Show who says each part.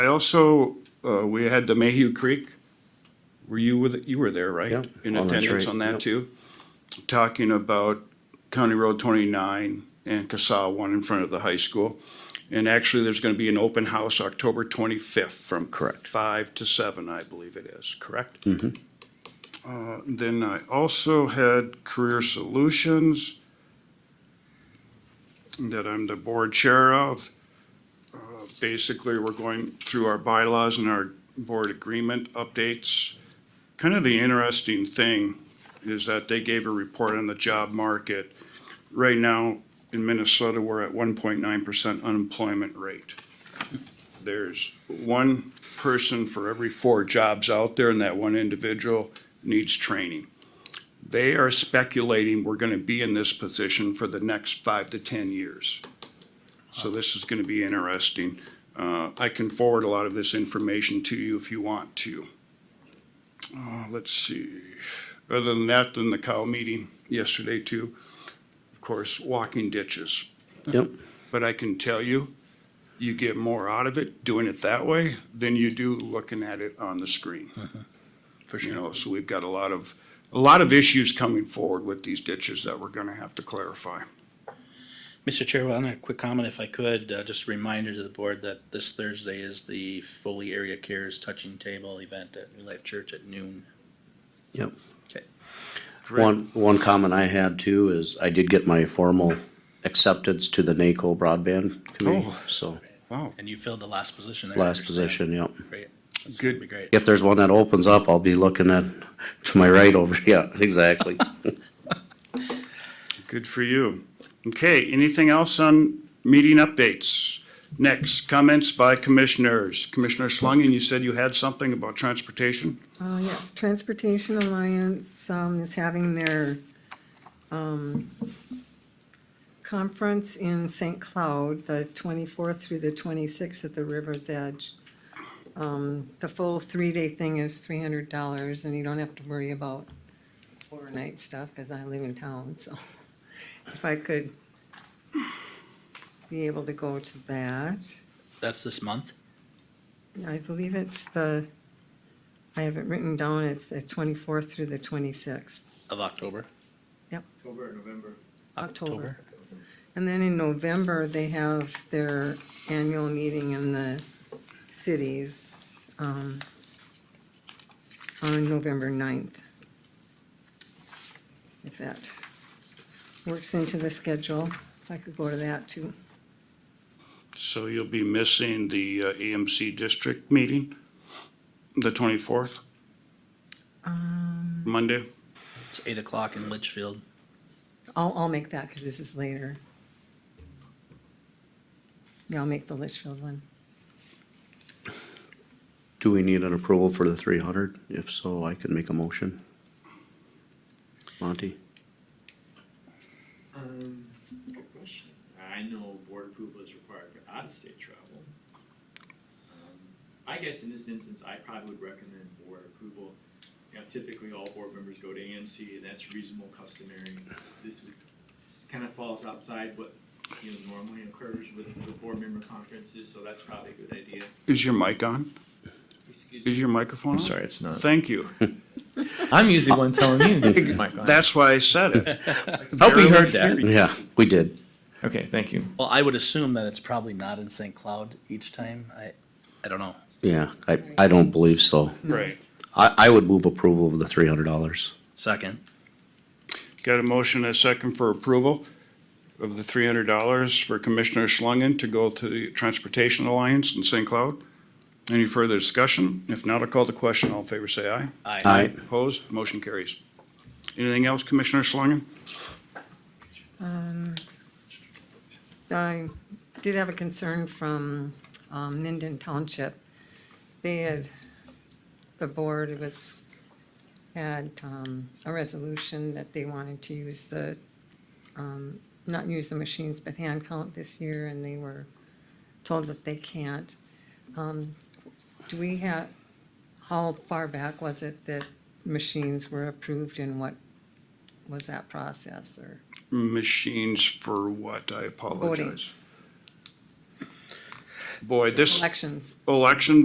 Speaker 1: I also, uh, we had the Mayhew Creek, were you with, you were there, right?
Speaker 2: Yeah.
Speaker 1: In
Speaker 2: Oh, that's
Speaker 1: attendance
Speaker 2: right.
Speaker 1: on that
Speaker 2: Yep.
Speaker 1: too? Talking about County Road twenty-nine and Casal one in front of the high school. And actually, there's gonna be an open house October twenty-fifth from
Speaker 2: Correct. Mm-hmm.
Speaker 1: five to seven, I believe it is, correct? Uh, then I also had Career Solutions that I'm the board chair of basically, we're going through our bylaws and our board agreement updates. Kind of the interesting thing is that they gave a report on the job market. Right now, in Minnesota, we're at one point nine percent unemployment rate. There's one person for every four jobs out there, and that one individual needs training. They are speculating we're gonna be in this position for the next five to ten years. So this is gonna be interesting. Uh, I can forward a lot of this information to you if you want to. Uh, let's see, other than that, then the cow meeting yesterday too, of course, walking ditches.
Speaker 2: Yep,
Speaker 1: But I can tell you, you get more out of it doing it that way than you do looking at it on the screen. Uh-huh. For sure. You know, so we've got a lot of, a lot of issues coming forward with these ditches that we're gonna have to clarify.
Speaker 3: Mr. Chair, well, a quick comment if I could, uh, just a reminder to the board that this Thursday is the Foley Area Cares Touching Table event at New Life Church at noon.
Speaker 2: yep.
Speaker 3: Okay.
Speaker 2: One, one comment I had too is I did get my formal acceptance to the NACO broadband committee,
Speaker 1: Oh.
Speaker 2: so
Speaker 1: Wow,
Speaker 3: And you filled the last position there. I
Speaker 2: last
Speaker 3: understand.
Speaker 2: position, yep.
Speaker 3: Great. That's
Speaker 1: Good.
Speaker 3: gonna be great.
Speaker 2: If there's one that opens up, I'll be looking at, to my right over, yeah, exactly.
Speaker 1: Good for you. Okay, anything else on meeting updates? Next, comments by commissioners. Commissioner Schlangen, you said you had something about transportation?
Speaker 4: Uh, yes, Transportation Alliance, um, is having their, um, conference in St. Cloud, the twenty-fourth through the twenty-sixth at the River's Edge. Um, the full three-day thing is three hundred dollars, and you don't have to worry about overnight stuff, cause I live in town, so if I could be able to go to that.
Speaker 3: That's this month?
Speaker 4: I believe it's the, I have it written down, it's the twenty-fourth through the twenty-sixth,
Speaker 3: Of October?
Speaker 4: Yep.
Speaker 3: October,
Speaker 4: October.
Speaker 3: November.
Speaker 4: And then in November, they have their annual meeting in the cities, um, on November 9th. If that works into the schedule, if I could go to that too.
Speaker 1: So you'll be missing the uh, AMC district meeting, the twenty-fourth?
Speaker 5: Um.
Speaker 1: Monday?
Speaker 3: It's eight o'clock in Litchfield.
Speaker 4: I'll, I'll make that, cause this is later. Yeah, I'll make the Litchfield one.
Speaker 2: Do we need an approval for the three hundred? If so, I can make a motion. Monty?
Speaker 6: Um, good question. I know board approval is required for out-of-state travel. Um, I guess in this instance, I probably would recommend board approval. You know, typically all board members go to AMC and that's reasonable customary. This would, kind of falls outside what, you know, normally occurs with the board member conferences, so that's probably a good idea.
Speaker 1: Is your mic on?
Speaker 6: Excuse me.
Speaker 1: Is your microphone on?
Speaker 5: I'm sorry, it's not.
Speaker 1: Thank you.
Speaker 5: I'm usually one telling you. to keep the mic on.
Speaker 1: That's why I said it.
Speaker 5: Hope you heard that.
Speaker 2: Yeah, we did.
Speaker 5: Okay, thank you.
Speaker 3: Well, I would assume that it's probably not in St. Cloud each time. I, I don't know.
Speaker 2: Yeah, I, I don't believe so.
Speaker 1: Right.
Speaker 2: I, I would move approval of the three hundred dollars.
Speaker 3: Second.
Speaker 1: Got a motion and a second for approval of the three hundred dollars for Commissioner Schlangen to go to the Transportation Alliance in St. Cloud. Any further discussion? If not, I'll call the question. All in favor, say aye.
Speaker 3: Aye.
Speaker 2: Aye.
Speaker 1: Opposed? Motion carries. Anything else, Commissioner Schlangen?
Speaker 4: I did have a concern from um, Minden Township. They had, the board was, had um, a resolution that they wanted to use the, um, not use the machines, but hand count this year, and they were told that they can't. Um, Do we have, how far back was it that machines were approved and what was that process, or?
Speaker 1: Machines for what? I apologize. boy, this
Speaker 4: elections.
Speaker 1: election